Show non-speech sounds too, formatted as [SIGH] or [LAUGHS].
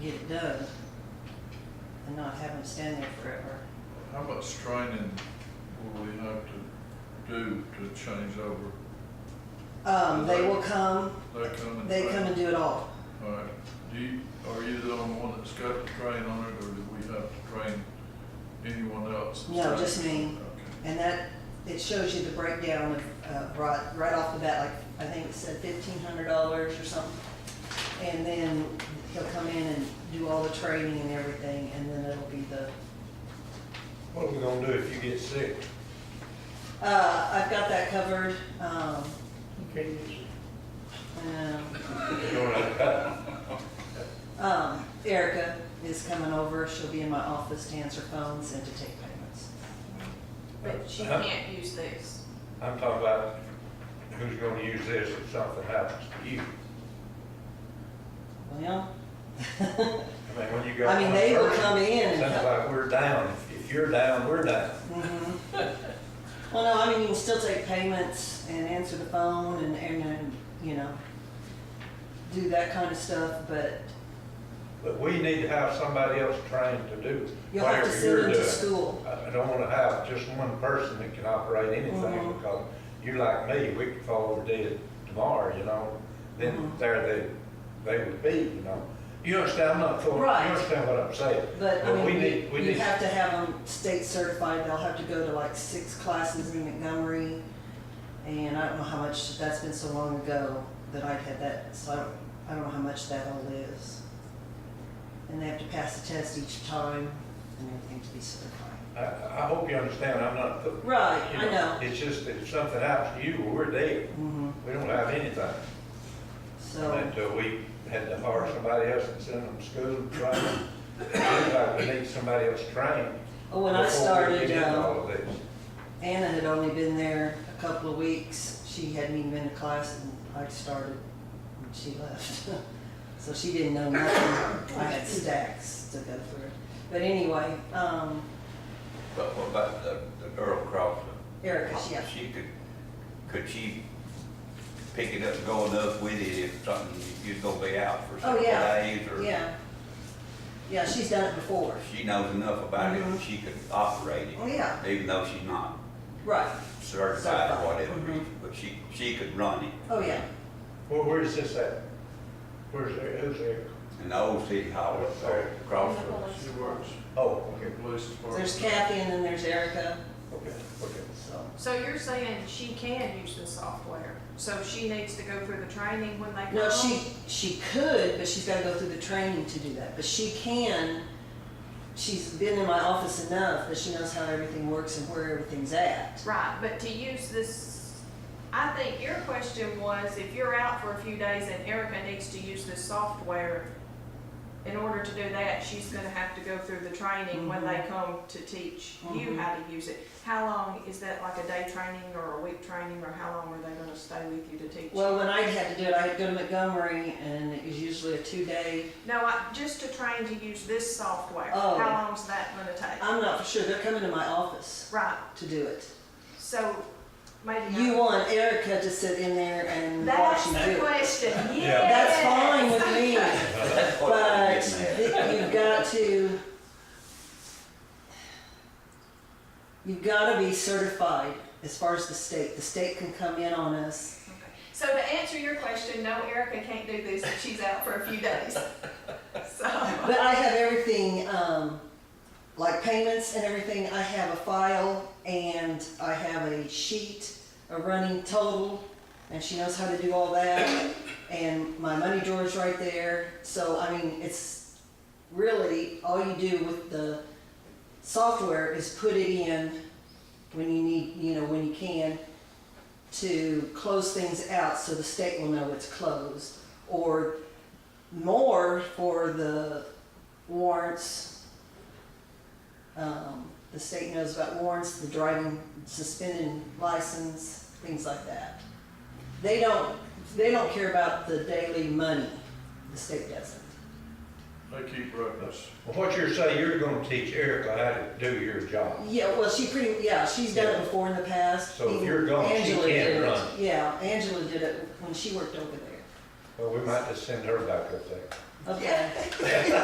get it done and not have them stand there forever. How much training will we have to do to change over? Um, they will come, They come and. they come and do it all. All right, do you, are you the only one that's got to train on it, or do we have to train anyone else? No, just me. Okay. And that, it shows you the breakdown of, uh, right, right off the bat, like, I think it said fifteen hundred dollars or something. And then he'll come in and do all the training and everything, and then it'll be the, What are we gonna do if you get sick? uh, I've got that covered, um, Okay. and, um, Erica is coming over, she'll be in my office to answer phones and to take payments. But she can't use these. I'm talking about who's gonna use this if something happens to you. [LAUGHS] Well, Mm-hmm. I mean, when you go. I mean, they will one come in person, and. Sounds like we're down. If- If you're down, we're down. Mhm. Well, no, I mean, you can still take payments and answer the phone and, and, and, you know, do that kind of stuff, but But we need to have somebody else trained to do you'll have to whatever send you're them to doing. school. I I don't wanna have just one person that can operate anything Mhm. because you like me, we could fall over dead tomorrow, you know? Then Mhm. there they, they would be, you know? You understand, I'm not, for- you Right. understand what I'm saying? But, I But we mean, need- you we you need- have to have them state certified, they'll have to go to like six classes in Montgomery. And I don't know how much, that's been so long ago that I've had that, so I don't, I don't know how much that all is. And they have to pass the test each time and everything to be certified. I, I hope you understand, I'm not the. Right, I you know. It's just that if something happens to you, well, we're dead. Mhm. We don't have anything. So, And uh, we had to hire somebody else and send them to school and train them. [COUGHS] Seems like we need somebody else trained. oh, when I before we started, get into uh, all of this. Anna had only been there a couple of weeks. She hadn't even been to class and I started and she left. [LAUGHS] So she didn't know nothing. I had stacks to go through. But anyway, um, But what about the, the girl across Erica, the, yeah, she could, could she pick it up and go enough with it if something, you're gonna be out for Oh, several yeah. days or? yeah. Yeah, she's done it before. If she knows enough about it, Mhm. she could operate Oh, it, yeah, even though she's not right. certified Certified, or whatever, mhm. but she, she could run it. Oh, yeah. Well, where is this at? Where's, there- who's there? In the old city hall, Oh, sorry. across In the the, police She works Oh, in okay, the police department. There's Kathy and then there's Erica, okay, okay. so. So you're saying she can use the software, so she needs to go through the training when they come? No, she, she could, but she's gotta go through the training to do that, but she can, she's been in my office enough that she knows how everything works and where everything's at. Right, but to use this, I think your question was, if you're out for a few days and Erica needs to use this software, in order to do that, she's gonna have to go through the training when Mm-hmm. they come to teach you Mhm. how to use it. How long, is that like a day training or a week training, or how long are they gonna stay with you to teach you? Well, when I had to do it, I had to go to Montgomery, and it was usually a two-day, No, I, just to train to use this software, Oh. how long's that gonna take? I'm not for sure, they're coming to my office Right, to do it. so maybe. You not- want Erica to sit in there and watch That's you do the it. question, Yeah. That's yes. fine with me. that's what I'm But getting at. th- you've got to, you've got to be certified as far as the state. The state can come in on us. Okay. So to answer your question, no, Erica can't do this if she's out for a few days. So, But I have everything, um, like payments and everything. I have a file and I have a sheet, a running total, and she knows how to do all that. And my money drawer's right there. So, I mean, it's really, all you do with the software is put it in when you need, you know, when you can, to close things out so the state will know it's closed. Or more for the warrants. Um, the state knows about warrants, the driving suspended license, things like that. They don't, they don't care about the daily money, the state doesn't. They keep records. Well, what you're saying, you're gonna teach Erica how to do your job. Yeah, well, she pretty, yeah, she's done it before in the past. So if you're Even gone, she Angela can't did it. run. Yeah, Angela did it when she worked over there. Well, we might just send her back up there. Okay.